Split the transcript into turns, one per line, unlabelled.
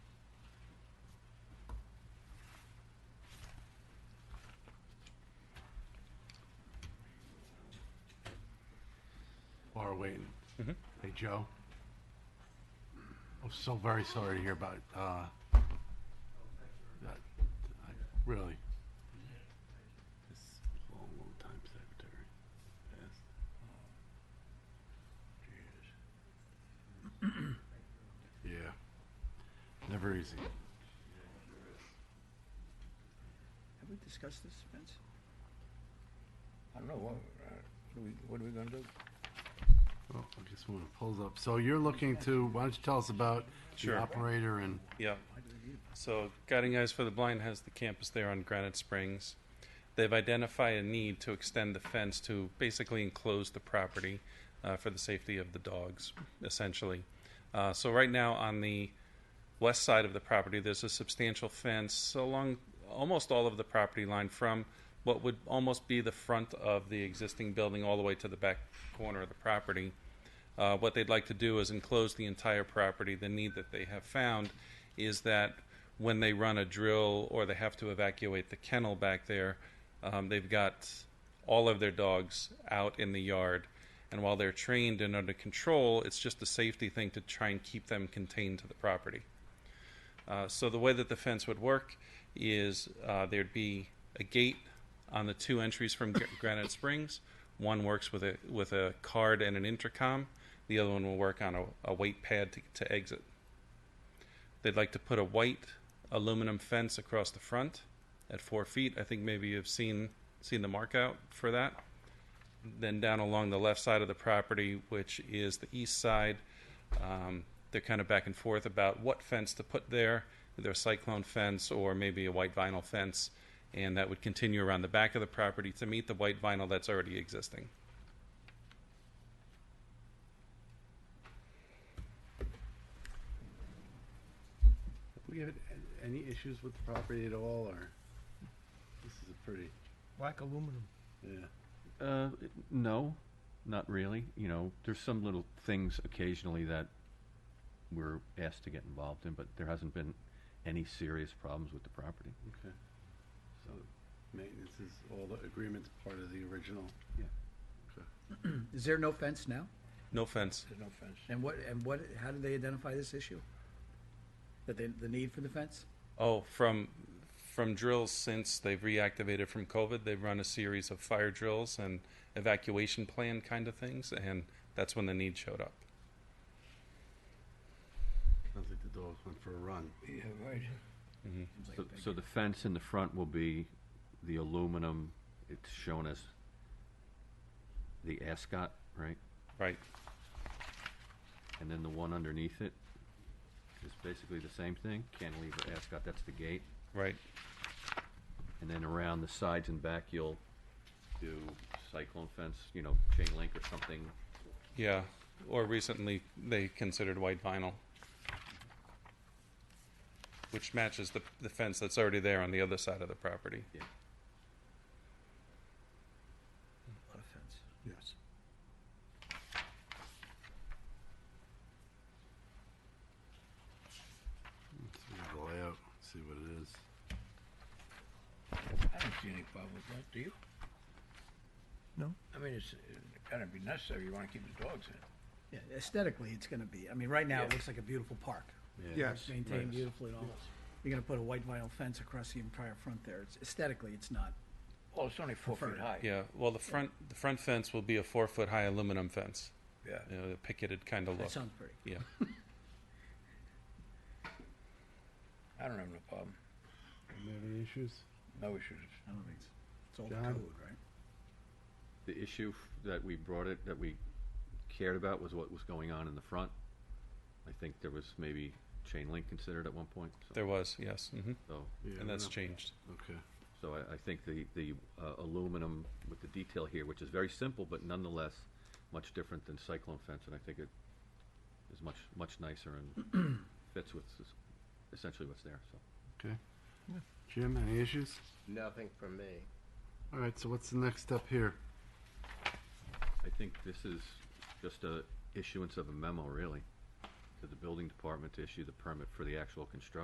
are waiting. Hey, Joe? I'm so very sorry to hear about, uh, that, I- really. This long, long time secretary. Yes. Jeez. Yeah, never easy.
Have we discussed this, Spence?
I don't know, what, uh, what are we, what are we gonna do?
Oh, I just want to pull up. So you're looking to, why don't you tell us about the
Sure.
operator and,
Yeah. So Guiding Eyes for the Blind has the campus there on Granite Springs. They've identified a need to extend the fence to basically enclose the property uh, for the safety of the dogs, essentially. Uh, so right now on the west side of the property, there's a substantial fence along almost all of the property line from what would almost be the front of the existing building all the way to the back corner of the property. Uh, what they'd like to do is enclose the entire property. The need that they have found is that when they run a drill or they have to evacuate the kennel back there, um, they've got all of their dogs out in the yard. And while they're trained and under control, it's just a safety thing to try and keep them contained to the property. Uh, so the way that the fence would work is uh, there'd be a gate on the two entries from Gr- Granite Springs. One works with a with a card and an intercom. The other one will work on a, a weight pad to, to exit. They'd like to put a white aluminum fence across the front at four feet. I think maybe you've seen seen the mark out for that. Then down along the left side of the property, which is the east side, um, they're kind of back and forth about what fence to put there, either a cyclone fence or maybe a white vinyl fence, and that would continue around the back of the property to meet the white vinyl that's already existing.
have we had any issues with the property at all, or? This is a pretty,
Black aluminum.
yeah.
Uh, it- no, not really. You know, there's some little things occasionally that we're asked to get involved in, but there hasn't been any serious problems with the property.
Okay. So maintenance is all the agreements part of the original?
Yeah.
Okay.
Is there no fence now?
No fence.
There's no fence.
And what, and what, how did they identify this issue? That they, the need for the fence?
Oh, from from drills since they've reactivated from COVID, they've run a series of fire drills and evacuation plan kind of things, and that's when the need showed up.
Sounds like the dogs went for a run.
Yeah, right.
Seems like a
So,
big-
so the fence in the front will be the aluminum, it's shown as the ascot, right?
Right.
And then the one underneath it is basically the same thing, cantilever ascot, that's the gate.
Right.
And then around the sides and back, you'll do cyclone fence, you know, chain link or something
Yeah. Or recently they considered white vinyl. Which matches the, the fence that's already there on the other side of the property.
a lot of fence.
Yes. Let's see the layout, see what it is.
I don't see any problem with that, do you?
No.
I mean, it's, it's gotta be necessary, you wanna keep the dogs in.
Yeah, aesthetically, it's gonna be, I mean, right now, it
Yeah.
looks like a beautiful park.
Yes.
Maintained
Yes.
beautifully and all. You're gonna put a white vinyl fence across the entire front there. It's aesthetically, it's not.
Well, it's only four feet
Preferred.
high.
Yeah. Well, the front the front fence will be a four foot high aluminum fence.
Yeah.
You know, the picketed kind of
That
look.
sounds pretty.
Yeah.
I don't have no problem,
You have any issues?
no issues.
I don't think it's, it's all the
John?
code, right?
The issue f- that we brought it, that we cared about was what was going on in the front. I think there was maybe chain link considered at one point, so,
There was, yes. hmm
so,
Yeah,
And that's
no.
changed.
Okay.
so I, I think the, the uh, aluminum with the detail here, which is very simple, but nonetheless much different than cyclone fence, and I think it is much, much nicer and fits with s- essentially what's there, so.
Okay. Jim, any issues?
Nothing from me.
All right, so what's the next step here?
I think this is just a issuance of a memo, really, to the building department to issue the permit for the actual construction